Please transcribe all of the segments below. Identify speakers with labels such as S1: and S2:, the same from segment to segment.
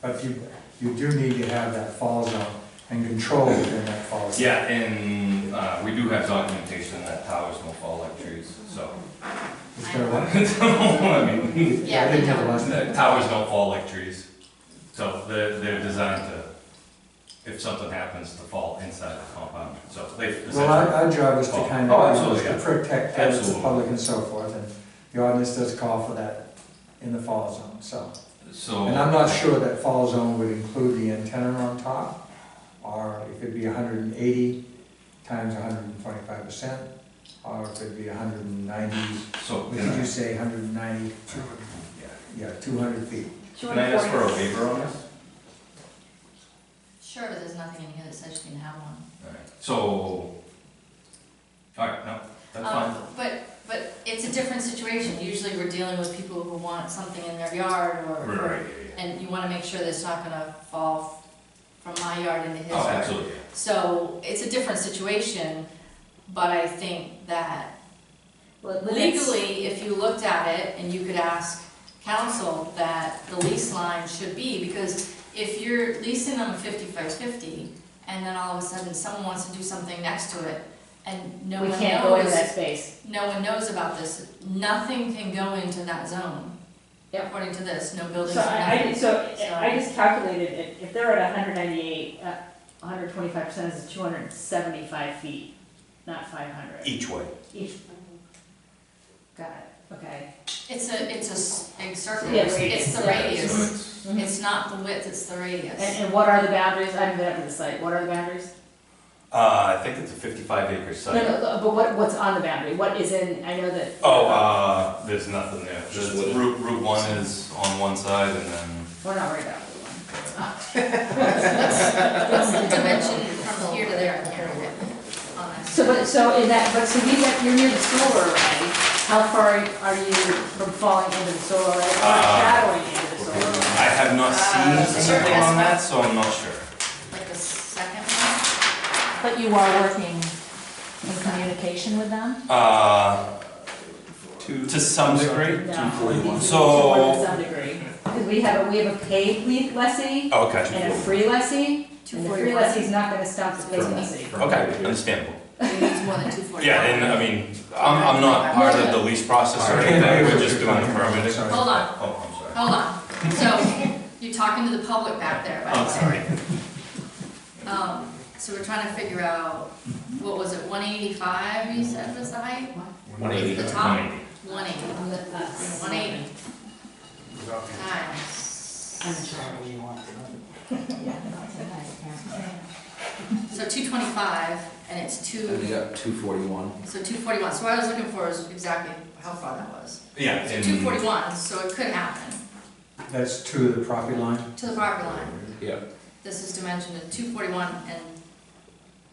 S1: But you, you do need to have that fall zone and control within that fall zone.
S2: Yeah, and, uh, we do have documentation that towers don't fall like trees, so.
S1: Is there one?
S2: I mean,
S1: I didn't have a lesson.
S2: the towers don't fall like trees, so they're, they're designed to, if something happens, to fall inside the compound, so they
S1: Well, our,
S2: essentially.
S1: our job is to kind
S2: Oh,
S1: of, is
S2: absolutely,
S1: to protect the
S2: Absolutely.
S1: public and so forth, and the ordinance does call for that in the fall zone, so.
S2: So.
S1: And I'm not sure that fall zone would include the antenna on top, or it could be hundred and eighty times hundred and twenty-five percent, or it could be hundred and ninety,
S2: So,
S1: what
S2: can
S1: did you
S2: I,
S1: say, hundred and ninety? Yeah, two hundred feet.
S2: can I ask for a waiver on this?
S3: Sure, but there's nothing in here that says you can have one.
S2: Alright, So, alright, no, that's fine.
S3: Um, But, but it's a different situation. Usually we're dealing with people who want something in their yard
S4: Oh.
S3: or.
S2: Right, right, yeah,
S3: And you wanna make sure that it's not gonna fall from my yard into his
S2: yeah. Oh,
S3: yard.
S2: absolutely, yeah.
S3: So it's a different situation, but I think that
S4: Well, it limits-
S3: legally, if you looked at it and you could ask council that the lease line should be, because if you're leasing them fifty-five fifty, and then all of a sudden someone wants to do something next to it, and no one
S4: We
S3: knows.
S4: can't go into that space.
S3: No one knows about this, nothing can go into that zone.
S4: Yep.
S3: According to this, no buildings,
S4: So I, I,
S3: nothing.
S4: so I just calculated it, if they're at hundred ninety-eight, uh, hundred twenty-five percent is two hundred seventy-five feet, not five hundred.
S2: Each way.
S4: Each. Got it, okay.
S3: It's a, it's a, s- a circle,
S4: Yeah,
S3: it's the
S4: radius.
S2: So
S3: radius,
S2: it's,
S4: Mhm.
S3: it's not the width, it's the radius.
S4: And, and what are the boundaries? I haven't been up to the site. What are the boundaries?
S2: uh, I think it's a fifty-five acre
S4: No,
S2: site.
S4: no, but what, what's on the boundary? What is in, I know that.
S2: Oh, uh, there's nothing there.
S5: Just
S2: The
S5: wood.
S2: Route, Route one is on one side and then,
S4: We're not worried about that one. uh,
S3: What's the dimension from here to there, I can't read it on this.
S4: So, but, so in that, but so you got, you're near the solar array. How far are you from falling into the solar array or
S2: Uh,
S4: shadowing into the solar array?
S2: I have not
S3: Uh,
S2: seen something on that, so I'm not sure.
S3: Like the second one?
S6: But you are working in communication with them?
S2: Uh, to, to some degree.
S4: No.
S2: So-
S4: To some degree, because we have, a we have a paid le- lessee
S2: Oh, Okay,
S4: and a free lessee, and the free
S3: 241.
S4: lessee's not gonna stop the paid
S3: Correct.
S4: lessee.
S2: okay, understandable.
S3: It needs more than two forty.
S2: Yeah, and I mean, I'm, I'm not part of the lease process or anything, we're just doing the permitting.
S1: Sorry.
S3: Hold on,
S2: Oh, I'm sorry.
S3: hold on. So, you're talking to the public back there, by the way.
S2: I'm Oh, sorry.
S3: Um, so we're trying to figure out, what was it, one eighty-five you said was the height?
S5: One eighty.
S3: The top? One eighty. One eighty times. So two twenty-five, and it's
S5: And they
S3: two,
S5: got two forty-one.
S3: so two forty-one. So what I was looking for is exactly how far that was.
S2: Yeah,
S3: So
S2: and.
S3: two forty-one, so it could happen
S1: That's to the property line?
S3: to the property line.
S5: Yeah.
S3: This is dimensioned at two forty-one and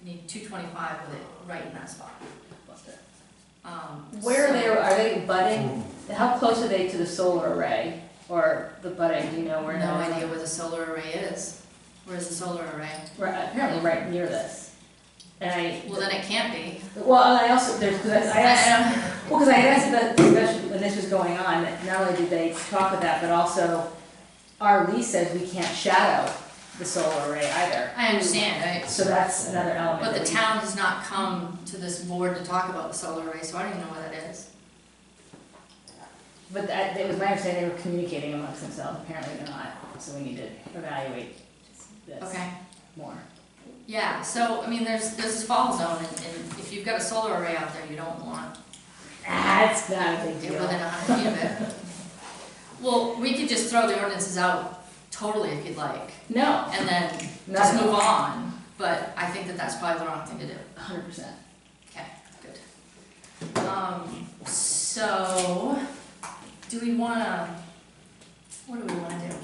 S3: you need two twenty-five with it right in that spot. Um,
S4: Where are
S3: so-
S4: they, are they budding, how close are they to the solar array, or the budding, do you know where?
S3: No
S4: that is?
S3: idea where the solar array is. Where's the solar array?
S4: Right, apparently right near this. And I,
S3: Well, then it can't be.
S4: well, and I also, there's, because I
S3: I-
S4: asked,
S3: I don't-
S4: Well, because I had asked about the discussion when this was going on, that not only did they talk about that, but also our lease says we can't shadow the solar array either.
S3: I understand, right?
S4: So that's another element.
S3: But the
S4: that we-
S3: town has not come to this board to talk about the solar array, so I don't even know where that is.
S4: But that, it was my understanding they were communicating amongst themselves, apparently they're not, so we need to evaluate this
S3: Okay.
S4: more.
S3: Yeah, so, I mean, there's, there's this fall zone, and, and if you've got a solar array out there, you don't want
S4: That's not a big
S3: it
S4: deal.
S3: within a hundred feet of it. Well, we could just throw the ordinances out totally if you'd like,
S4: No,
S3: and then just move
S4: not
S3: on, but I think that that's probably the wrong thing to do.
S4: a hundred percent.
S3: Okay, good. Um, so, do we wanna, what do we wanna do?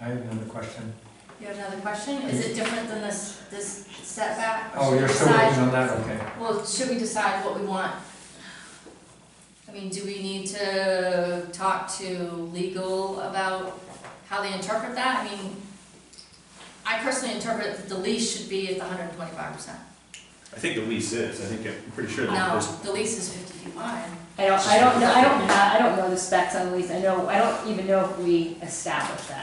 S1: I have another question.
S3: You have another question? Is it different than this, this setback?
S1: Oh, you're still
S3: Side-
S1: working on that, okay.
S3: Well, should we decide what we want? I mean, do we need to talk to legal about how they interpret that? I mean, I personally interpret that the lease should be at the hundred and twenty-five percent.
S7: I think the lease is, I think, I'm pretty sure the
S3: No,
S7: first.
S3: the lease is fifty feet wide.
S4: I don't, I don't, know- I don't, ha- I don't know the specs on the lease, I know, I don't even know if we established that.